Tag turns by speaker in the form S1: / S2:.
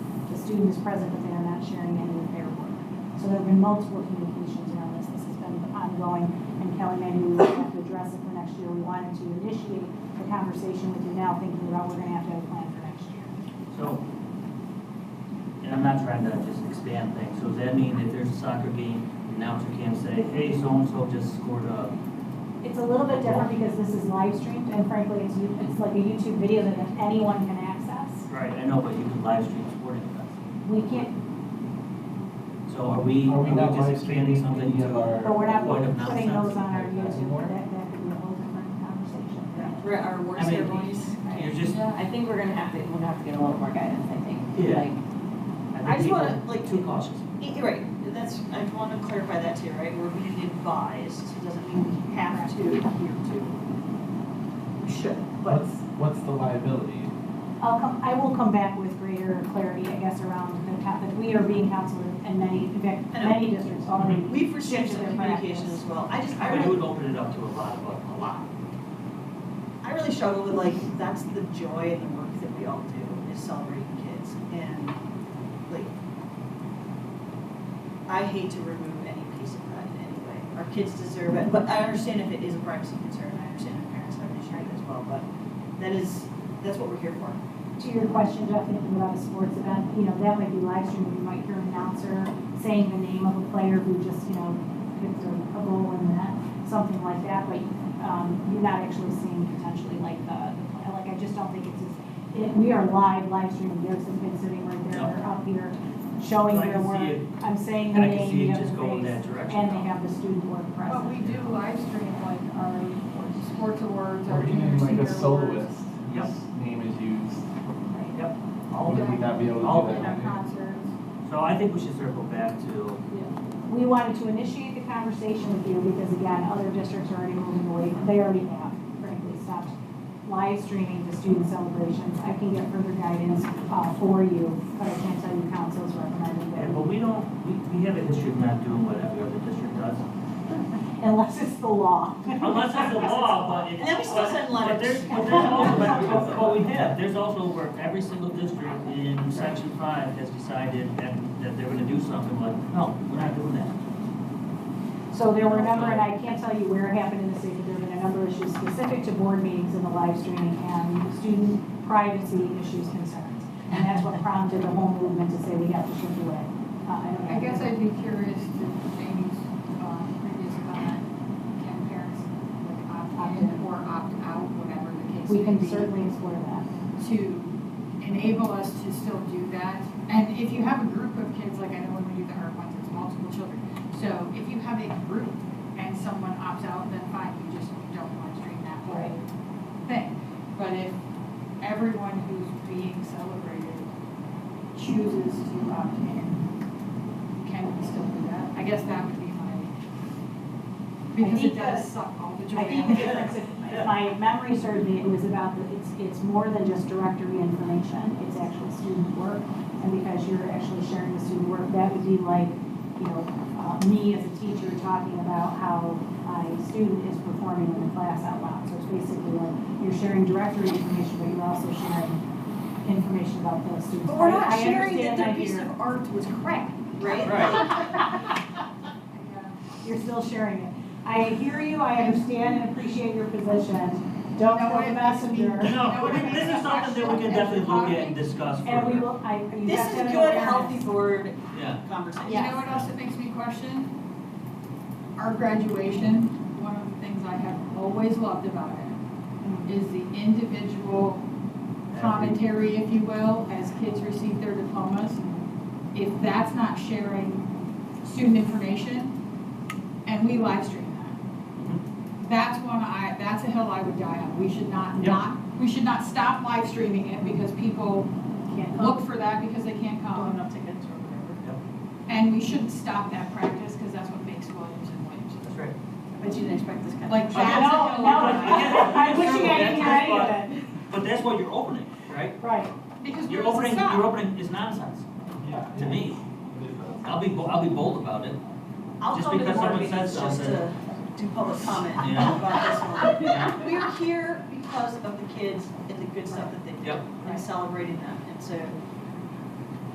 S1: student is present, but they are not sharing any of their work. So there have been multiple communications around this. This has been ongoing, and Kelly, maybe we will have to address it for next year. We wanted to initiate the conversation with you now, thinking about we're gonna have to have a plan for next year.
S2: So, and I'm not trying to just expand things, so does that mean if there's a soccer game, the announcer can't say, hey, so-and-so just scored a,
S1: It's a little bit different because this is live streamed, and frankly, it's, you- it's like a YouTube video that anyone can access.
S2: right, I know, but you can live stream sporting events.
S1: We can't,
S2: So are we,
S3: Are
S2: are
S3: we
S2: we
S3: not
S2: just
S3: live
S2: expanding
S3: streaming
S2: something
S3: any of
S2: to?
S3: our-
S1: but we're not
S2: Point of
S1: putting
S2: nonsense.
S1: those on our YouTube, but that, that could be a whole different conversation.
S4: We're at our worst
S2: I mean,
S4: ceremonies.
S2: you're just-
S4: Yeah, I think we're gonna have to, we're gonna have to get a little more guidance, I think.
S2: Yeah.
S4: Like,
S2: think
S4: I just
S2: people
S4: wanna,
S2: are
S4: like-
S2: Too cautious.
S4: y- you're right, that's, I wanna clarify that too, right? We're being advised, it doesn't mean we have to adhere to. We should, but.
S3: What's, what's the liability?
S1: I'll come, I will come back with greater clarity, I guess, around the, co- that we are being counseled in many, in fact,
S4: I know.
S1: many districts already.
S4: We've
S1: Change
S4: restricted the
S1: their
S4: communication
S1: practice.
S4: as well. I just, I
S2: But it
S4: really,
S2: would open it up to a lot of, a lot.
S4: I really struggle with like, that's the joy and the work that we all do, is celebrating kids. And like, I hate to remove any piece of that in any way. Our kids deserve it, but I understand if it is a privacy concern, I understand if parents have an issue with it as well, but that is, that's what we're here for.
S1: To your question, Jeff, thinking about a sports event, you know, that might be live streamed, you might hear an announcer saying the name of a player who just, you know, hits a, a goal in the net, something like that, but, um, you're not actually seeing potentially like the, the play. like, I just don't think it's as, it, we are live, live streaming, there's some kids sitting right there, they're up here showing
S2: I
S1: their
S2: can see
S1: work.
S2: it.
S1: I'm saying the
S2: And I can
S1: name,
S2: see
S1: you
S2: it
S1: have the
S2: just going
S1: face,
S2: that direction.
S1: and they have the student work present.
S5: But we do live stream like our sports awards,
S3: Or
S5: our
S3: even
S5: junior
S3: like
S5: senior
S3: a
S5: awards.
S3: soloist,
S2: Yep.
S3: whose name is used,
S1: Right.
S2: Yep. All of
S3: would
S2: it.
S3: we not be able
S2: All of
S3: to do
S5: And our
S3: that?
S5: concerts.
S2: So I think we should circle back to,
S1: We wanted to initiate the conversation with you because again, other districts are already moving away, they already have frankly stopped live streaming the student celebrations. I can get further guidance, uh, for you, but I can't tell you council's recommending
S2: and, but
S1: that
S2: we don't, we, we have a history of not doing what every other district does.
S1: unless it's the law.
S2: Unless it's a law, but it's.
S4: And then we still send
S2: But there's,
S4: letters.
S2: but there's also, but, but- but we have, there's also where every single district in section five has decided that, that they're gonna do something, like, no, we're not doing that.
S1: So there were a number, and I can't tell you where it happened in the city, but there have been a number of issues specific to board meetings and the live streaming and student privacy issues concerns. And that's what prompted the whole movement to say we have to shift away. Uh, don't
S5: I guess
S1: know.
S5: I'd be curious to Amy's uh, previous comment, can parents like, opt in or opt out, whatever the case
S1: We
S5: may
S1: can
S5: be?
S1: certainly explore that.
S5: to enable us to still do that. And if you have a group of kids, like I know when we do the art ones, it's multiple children. So if you have a group and someone opts out, then fine, you just don't want to stream that whole thing. But if everyone who's being celebrated chooses to opt in, can we still do that? I guess that would be my, because
S1: think
S5: it
S1: that-
S5: does suck all the joy
S1: I
S5: out
S1: think
S5: of
S1: the
S5: it.
S1: difference, if if my memory serves me, it was about, the it's, it's more than just directory information, it's actual student work. And because you're actually sharing the student work, that would be like, you know, uh, me as a teacher talking about how my student is performing in the class out loud. So it's basically like, you're sharing directory information, but you're also sharing information about those students.
S4: But we're not
S1: I- I
S4: sharing
S1: understand
S4: that their
S1: that
S4: piece
S1: you're-
S4: of art was crap, right?
S1: You're still sharing it. I hear you, I understand and appreciate your position. Don't
S5: No,
S1: throw
S5: it-
S1: the messenger.
S2: No, this is something that we can definitely look at and discuss
S1: And we
S2: further.
S1: will, I, you
S4: This
S1: have to
S4: is
S1: have
S4: good,
S1: an
S4: healthy
S1: awareness.
S4: board
S2: Yeah,
S4: conversation.
S5: You know what else that makes me question? Our graduation, one of the things I have always loved about it is the individual commentary, if you will, as kids receive their diplomas. If that's not sharing student information, and we live stream that, that's one I, that's a hill I would die on. We should not
S2: Yep.
S5: not, we should not stop live streaming it because people
S1: Can't look.
S5: look for that because they can't come.
S1: Oh,
S4: Going up to kids or whatever.
S5: And we shouldn't stop that practice, because that's what makes Williams and Williams.
S2: That's right.
S4: I bet you didn't expect this kind of.
S5: Like,
S2: I
S5: that's
S2: know,
S5: a
S1: No,
S5: hill
S1: no,
S5: I die on.
S1: I wish you guys could hear any of
S2: But that's why you're opening, right?
S1: it. Right.
S5: Because
S2: You're
S5: where
S2: opening,
S5: does it
S2: you're
S5: stop?
S2: opening is nonsense,
S3: Yeah.
S2: to me.
S3: It is a-
S2: I'll be, bo- I'll be bold about it,
S4: I'll
S2: Just
S4: come to the
S2: because
S4: board
S2: someone
S4: meetings
S2: says
S4: just
S2: something.
S4: to do public comment
S2: You know?
S4: about
S2: you
S4: this
S2: know?
S4: one. We are here because of the kids and the good stuff that they do
S2: Yep.
S4: and celebrating them. And so